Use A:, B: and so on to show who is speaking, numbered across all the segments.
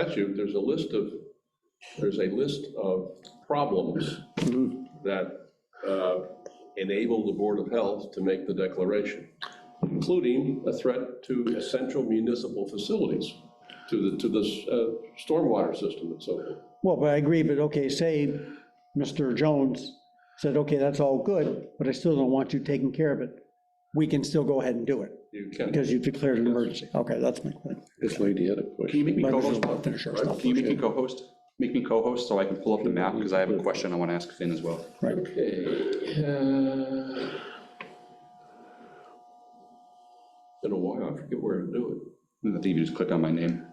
A: statute, there's a list of, there's a list of problems that uh, enable the Board of Health to make the declaration, including a threat to essential municipal facilities, to the, to the uh, stormwater system and so forth.
B: Well, but I agree, but okay, say Mr. Jones said, okay, that's all good, but I still don't want you taking care of it. We can still go ahead and do it
A: You can,
B: because you've declared an emergency. Okay, that's my point.
C: This lady had a
D: Can
C: question.
D: you make me
B: Might as
D: co-host?
B: well finish our stuff
D: Can you make me co-host? Make me co-host so I can pull up the map, because I have a question I want to ask Finn as well.
B: Right.
D: uh,
A: in a while, I forget where to do it.
D: I think you just click on my name.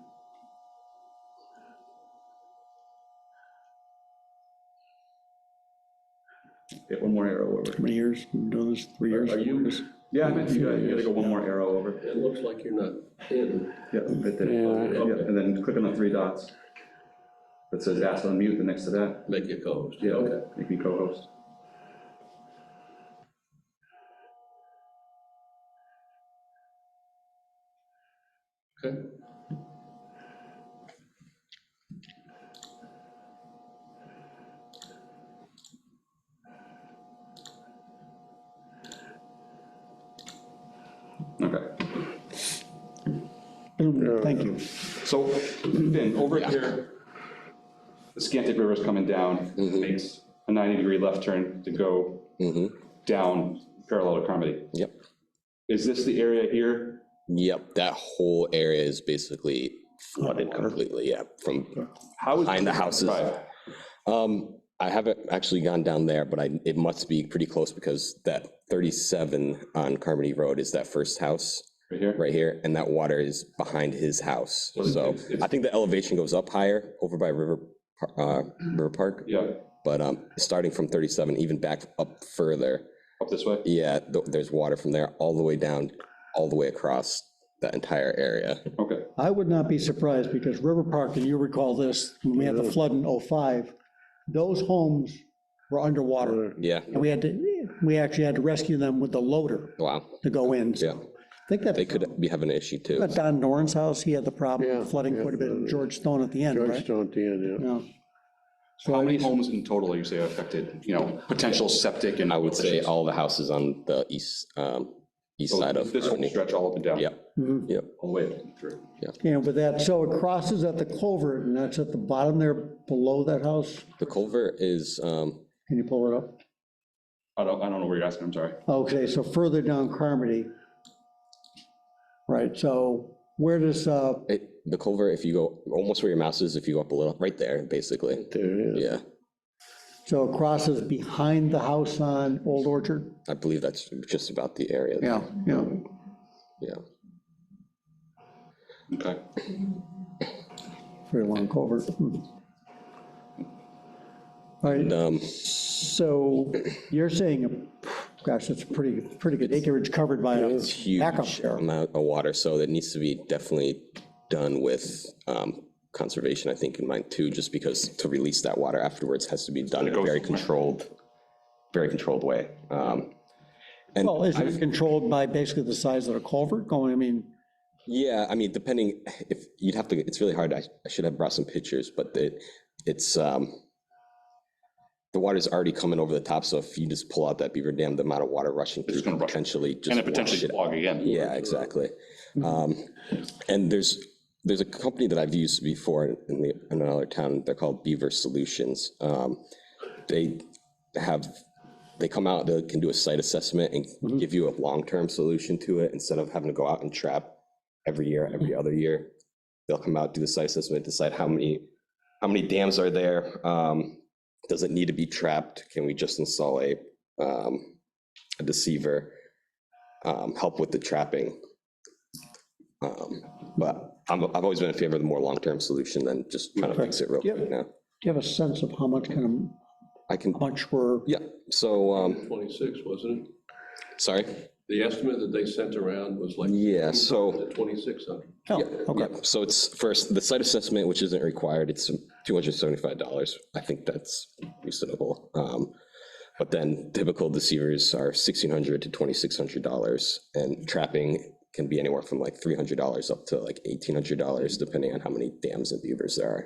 D: Yeah, one more arrow over.
B: How many years, We've been doing this, three years?
A: Are you,
D: Yeah, I meant you gotta, you gotta go one more arrow over.
A: it looks like you're not in.
D: Yeah, right there.
C: Yeah.
D: Yeah, and then click on the three dots. That says ask to unmute, the next to that.
A: Make it goes.
D: Yeah, okay, make me co-host.
A: Okay.
D: Okay.
B: Boom, Thank you.
D: So, Finn, over here, the Scantic River's coming down,
E: Mm-hmm.
D: makes a 90-degree left turn to go down parallel to Carmody.
E: Yep.
D: Is this the area here?
E: Yep. That whole area is basically flooded completely. Yeah. From
D: How is
E: Behind the houses.
D: 365?
E: um, I haven't actually gone down there, but I it must be pretty close because that 37 on Carmody Road is that first house
D: Right here?
E: right here, and that water is behind his house. So I think the elevation goes up higher over by River Par- uh, River Park,
D: Yeah,
E: but um, starting from 37, even back up further,
D: up this way?
E: yeah, th- there's water from there all the way down, all the way across that entire area.
D: Okay,
B: I would not be surprised because River Park, and you recall this, when we had the flood in '05, those homes were underwater.
E: Yeah.
B: And we had to, we actually had to rescue them with the loader
E: Wow.
B: to go in. So
E: Yeah.
B: I think that.
E: They could be having an issue too.
B: At Don Doran's house, he had the problem with
C: Yeah,
B: flooding
C: yeah,
B: quite a bit, and
C: uh,
B: George Stone at the end, right?
C: Georgetown, Dan, yeah.
B: Yeah.
D: how many homes in total are you say affected, you know, potential septic and?
E: I would say all the houses on the east, um, east
D: So
E: side of
D: Oh, This whole
E: Courtney.
D: stretch all up and down?
E: Yep,
B: Mhm.
E: yep,
D: All the way through?
B: Yeah, but that, so it crosses at the culvert, and that's at the bottom there, below that house.
E: the culvert is, um,
B: Can you pull it up?
D: I don't, I don't know where you're asking, I'm sorry.
B: Okay, so further down Carmody. Right, so where does, uh,
E: it, the culvert, if you go, almost where your mouse is, if you go up a little, right there, basically,
C: There, yeah.
E: yeah,
B: so it crosses behind the house on Old Orchard?
E: I believe that's just about the area.
B: Yeah, yeah.
E: Yeah,
D: Okay.
B: Very long culvert. Hmm. All right,
E: um,
B: So you're saying, gosh, that's a pretty, pretty good acreage covered by a backup
E: huge
B: there.
E: amount of water, so that needs to be definitely done with, um, conservation, I think, in mind too, just because to release that water afterwards has to be done in a very controlled, very controlled way. Um, and
B: Well, is it controlled by basically the size of the culvert going, I mean,
E: Yeah, I mean, depending, if, you'd have to, it's really hard, I I should have brought some pictures, but it, it's, um, the water's already coming over the top, so if you just pull out that beaver dam, the amount of water rushing through
D: gonna
E: could
D: rush.
E: potentially just.
D: And it
E: wash
D: potentially
E: it
D: clog again?
E: yeah, exactly. Um, And there's, there's a company that I've used before in the, in another town, they're called Beaver Solutions. Um, They have, they come out, they can do a site assessment and give you a long-term solution to it instead of having to go out and trap every year, every other year. They'll come out, do the site assessment, decide how many, how many dams are there? um, Does it need to be trapped? Can we just install a, um, a deceiver? um, help with the trapping. Um, But I'm, I've always been in favor of the more long-term solution than just trying to fix it real
B: Yep.
E: quick now.
B: do you have a sense of how much kind of,
E: I can,
B: how much were,
E: yeah, so, um,
A: 26, wasn't it?
E: sorry.
A: The estimate that they sent around was like
E: Yeah, so,
A: 2,600.
B: oh,
E: yeah,
B: okay,
E: so it's first, the site assessment, which isn't required, it's $275. I think that's reasonable. Um, But then typical deceivers are $1,600 to $2,600, and trapping can be anywhere from like $300 up to like $1,800, depending on how many dams and beavers there are.